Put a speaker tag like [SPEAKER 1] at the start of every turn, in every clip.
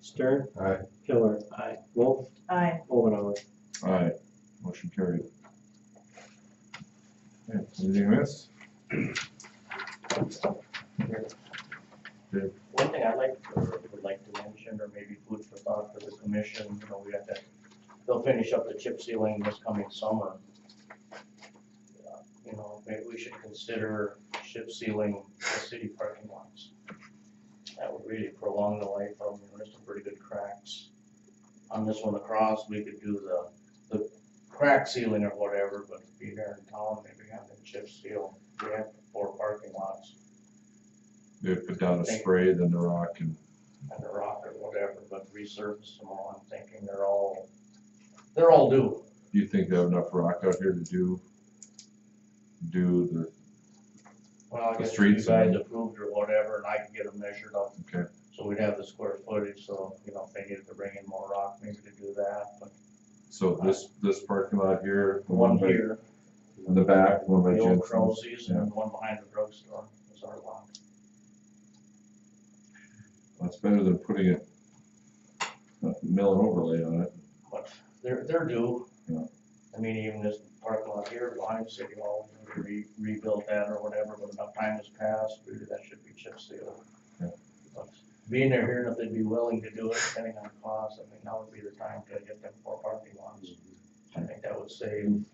[SPEAKER 1] Stern,
[SPEAKER 2] Aye.
[SPEAKER 1] Pillar.
[SPEAKER 3] Aye.
[SPEAKER 1] Wolf,
[SPEAKER 4] Aye.
[SPEAKER 1] Omenauer.
[SPEAKER 2] Aye, motion carried. Okay, Anything else?
[SPEAKER 3] One thing I like, or would like to mention, or maybe food for thought for the commission, you know, we have to, they'll finish up the chip sealing this coming summer. Uh, You know, maybe we should consider chip sealing the city parking lots. That would really prolong the life of, them. there's some pretty good cracks. On this one across, we could do the, the crack sealing or whatever, but be here in town, maybe have them chip seal, we have four parking lots
[SPEAKER 2] They put down a spray, then the rock and,
[SPEAKER 3] and the rock or whatever, but resurface them all, I'm thinking they're all, they're all due.
[SPEAKER 2] do you think they have enough rock out here to do? Do the,
[SPEAKER 3] Well, I
[SPEAKER 2] The
[SPEAKER 3] guess if you
[SPEAKER 2] streets
[SPEAKER 3] guys
[SPEAKER 2] and-
[SPEAKER 3] approved or whatever, and I could get them measured up,
[SPEAKER 2] okay,
[SPEAKER 3] so we'd have the square footage, so, you know, if they needed to bring in more rock, maybe to do that, but
[SPEAKER 2] so this, this parking lot here. the
[SPEAKER 3] one
[SPEAKER 2] by-
[SPEAKER 3] here,
[SPEAKER 2] In the back, one by
[SPEAKER 3] the old
[SPEAKER 2] Jensen's.
[SPEAKER 3] Crozie's, and one behind the drugstore is our lot.
[SPEAKER 2] That's better than putting a, a mill and overlay on it.
[SPEAKER 3] But they're, they're due.
[SPEAKER 2] Yeah.
[SPEAKER 3] I mean, even this parking lot here, behind City Hall, we could re, rebuild that or whatever, but enough time has passed, really that should be chip sealed.
[SPEAKER 2] Yeah.
[SPEAKER 3] But Being there here, and if they'd be willing to do it, depending on cost, I mean, now would be the time to get them four parking lots. I think that would save
[SPEAKER 2] You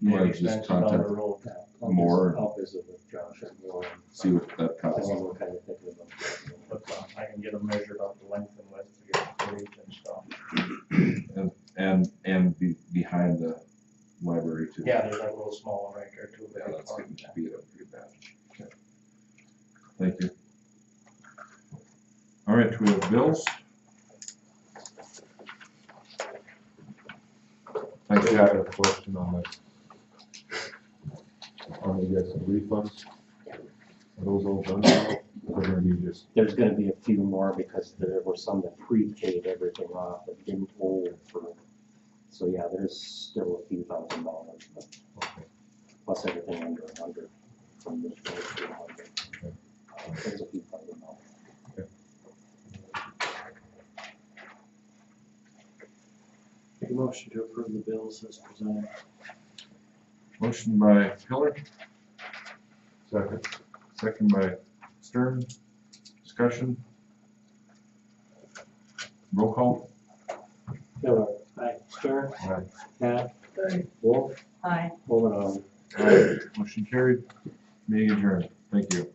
[SPEAKER 3] maybe
[SPEAKER 2] wanna just
[SPEAKER 3] expenses down the
[SPEAKER 2] contact,
[SPEAKER 3] road.
[SPEAKER 1] I'll vis-
[SPEAKER 2] More.
[SPEAKER 1] I'll visit with Josh and Will. and
[SPEAKER 2] see what that costs.
[SPEAKER 1] See what kind of thinking about. that.
[SPEAKER 3] But uh, I can get them measured up the length and width to get the footage and stuff.
[SPEAKER 2] And, and be, behind the library too.
[SPEAKER 3] Yeah, there's that little small one right there too.
[SPEAKER 2] Yeah,
[SPEAKER 3] that
[SPEAKER 2] that's
[SPEAKER 3] parking
[SPEAKER 2] getting
[SPEAKER 3] lot.
[SPEAKER 2] beat up pretty bad. Okay. Thank you. All right, we have bills.
[SPEAKER 5] I did have a question on the, on the, yes, the refunds. Are those all done now? Or are you just,
[SPEAKER 1] There's gonna be a few more because there were some that pre-paid everything off that didn't hold for. So yeah, there's still a few thousand dollars, but
[SPEAKER 5] okay,
[SPEAKER 1] plus everything under a hundred from this. one to a hundred. Uh,
[SPEAKER 5] Okay.
[SPEAKER 1] There's a few thousand dollars.
[SPEAKER 6] Make a motion to approve the bills as presented.
[SPEAKER 2] Motion by Pillar,
[SPEAKER 5] second,
[SPEAKER 2] second by Stern. Discussion. Roll call.
[SPEAKER 1] Miller. Aye. Stern.
[SPEAKER 5] Aye.
[SPEAKER 1] Hack.
[SPEAKER 4] Aye.
[SPEAKER 1] Wolf.
[SPEAKER 4] Aye.
[SPEAKER 1] Omenauer.
[SPEAKER 2] Aye. Motion carried. Meeting adjourned. Thank you.